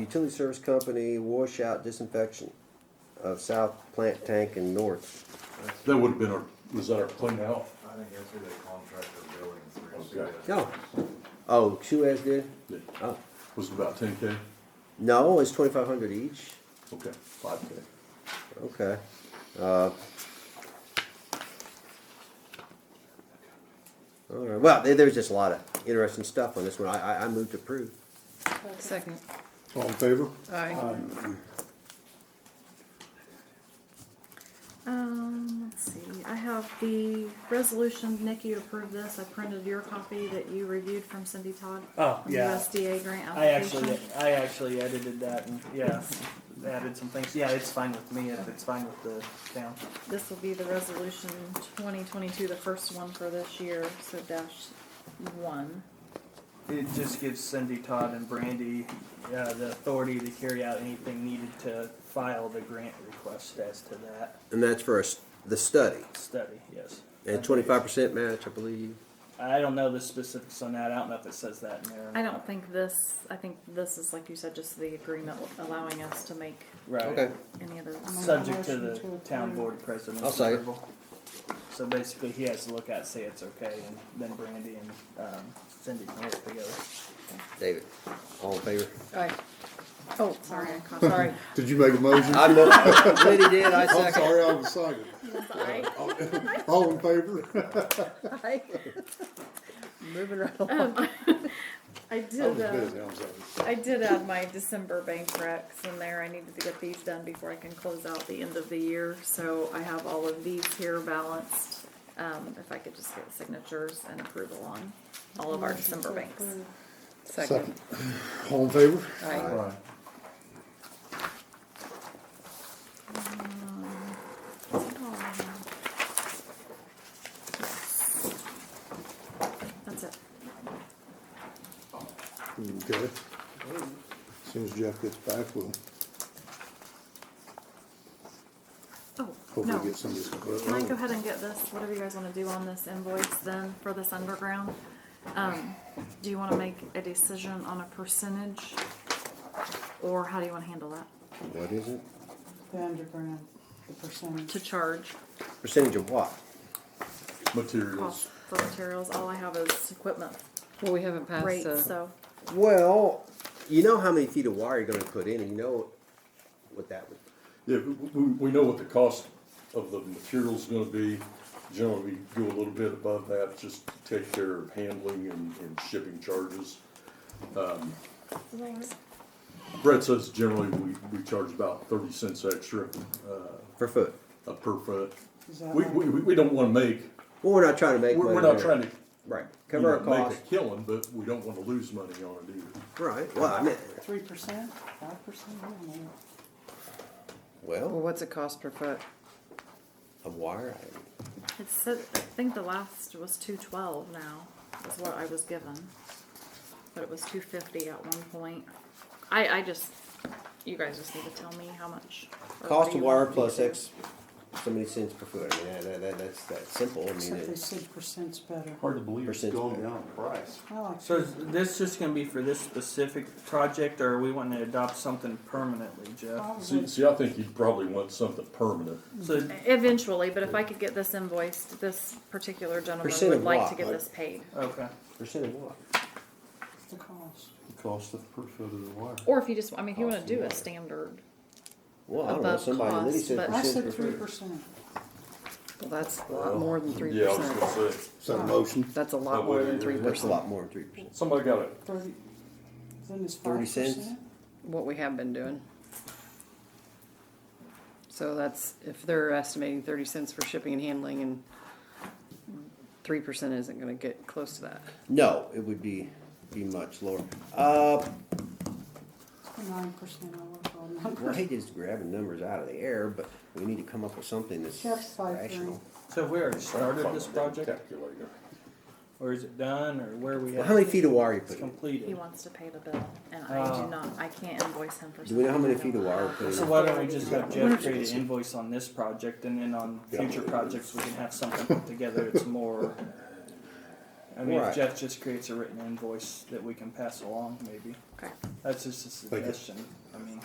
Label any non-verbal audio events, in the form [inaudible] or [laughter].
Utility Service Company washout disinfection of south plant tank and north. That would have been our, was that our clean out? I think that's who they contracted building through. Okay. No. Oh, Suez did? Oh. Was it about ten K? No, it's twenty-five hundred each. Okay, five K. Okay. Uh, All right, well, there, there's just a lot of interesting stuff on this one. I, I, I moved to approve. Second, All in favor? aye. Um, let's see, I have the resolution, Nikki approved this, I printed your copy that you reviewed from Cindy Todd. Oh, on the yeah. USDA grant I actually, application. I actually edited that and, yeah, added some things. Yeah, it's fine with me if it's fine with the town. This will be the resolution twenty twenty-two, the first one for this year, so dash one. It just gives Cindy, Todd, and Brandy, uh, the authority to carry out anything needed to file the grant request as to that And that's for us, the study. study, yes. And twenty-five percent match, I believe. I don't know the specifics on that. I don't know if it says that in there. or I not. don't think this, I think this is, like you said, just the agreement allowing us to make Right. any other. Subject to the town board president's I'll second. approval. So basically, he has to look at, say it's okay, and then Brandy and, um, Cindy can work together. David, all in favor? Aye. Oh, sorry, I caught- sorry. Did you make a [laughs] motion? I [laughs] moved, Liddy did, I I'm second. sorry, I was silent. All in [laughs] favor? Moving right along. I I was did, uh, busy, I'm sorry. I did add my December bank recs in there. I needed to get these done before I can close out the end of the year. So I have all of these here balanced. Um, if I could just get signatures and approval on all of our December banks. Second. All in favor? Right. That's it. Okay. As Soon as Jeff gets back, we'll Oh, hopefully no. get some of this. Can I go ahead and get this, whatever you guys wanna do on this invoice then for this underground? Um, do you wanna make a decision on a percentage? Or how do you wanna handle that? What is it? The underground, the percentage. To charge Percentage of what? Materials. cost for materials, all I have is equipment Well, we haven't passed rate, the, so. Well, you know how many feet of wire you're gonna put in, and you know what that would, Yeah, we, we- we know what the cost of the material's gonna be. Generally, we go a little bit above that, just to take care of handling and, and shipping charges. Brett says generally we, we charge about thirty cents extra, per foot. uh, per foot. Is that We, right? we, we don't wanna make, Well, we're not trying to make money we're, we're not there. trying to, Right, you cover our know, costs, make a killing, but we don't wanna lose money on it either. right, well, I mean, Three percent, five percent, I don't know. well, well, what's it cost per foot? of wire, It's, uh, I think the last was two twelve now, is what I was given. But it was two fifty at one point. I, I just, you guys just need to tell me how much. I- or what cost do of you wire want me to plus do. X, so many cents per foot, I mean, that, that, that's, that's simple, I mean, Except they it's said percent's better. Hard to believe percent. down in price. I like So is this just gonna be for this specific project, or are we wanting to adopt something permanently, Jeff? See, Mhm. probably see, I think you'd probably want something permanent. So, Eventually, but if I could get this invoiced, this particular gentleman Percent would of like what, to get like- this paid. okay. Percent of what? the cost. Cost of per foot of the wire. Or if you just, I mean, if you wanna Cost of do wire. a standard, Well, I don't know, Above somebody, Liddy cost, said but- I percent per said three foot. percent. Well, that's a lot more than three Yeah, I was percent. gonna say, Is that a motion? That's a That lot more would than be- three That's a percent, lot more than three percent. somebody got a Thirty, then it's five 30 cents? percent. what we have been doing. So that's, if they're estimating thirty cents for shipping and handling and three percent isn't gonna get close to that. No, it would be, be much lower. Uh, Nine percent, I work on nine well, I percent. hate just grabbing numbers out of the air, but we need to come up with something that's Jeff's five rational. grand. So have we already started this project, Calculator. or is it done, or where are we Well, at? how many feet of wire you It's put in? he completed. wants to pay the bill, and I Oh. do not, I can't invoice him for. Do we know how something many I feet of don't wire have. put So in? why don't we just have Jeff create an invoice on this project, and then on future projects, we can have something put together that's more I mean, if Right. Jeff just creates a written invoice that we can pass along, maybe. Okay. That's just a you. suggestion, I mean.